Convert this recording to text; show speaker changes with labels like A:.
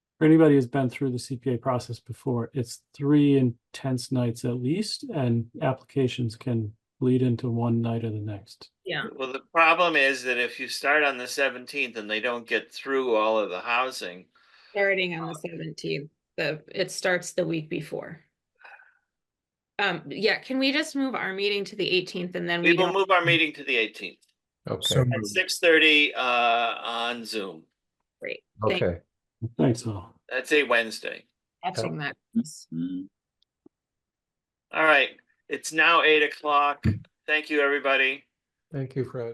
A: for anybody who's been through the CPA process before, it's three intense nights at least, and applications can bleed into one night or the next.
B: Yeah,
C: Well, the problem is that if you start on the seventeenth and they don't get through all of the housing,
B: starting on the seventeenth, the, it starts the week before. Um, yeah, can we just move our meeting to the eighteenth and then we
C: we will
B: don't,
C: move our meeting to the eighteenth
D: Okay,
E: So
C: at
E: moved.
C: six thirty uh on Zoom.
B: great, thank you
D: okay.
A: Thanks all.
C: That's a Wednesday.
B: for catching that.
C: All right, it's now eight o'clock. Thank you, everybody.
D: Thank you, Fred.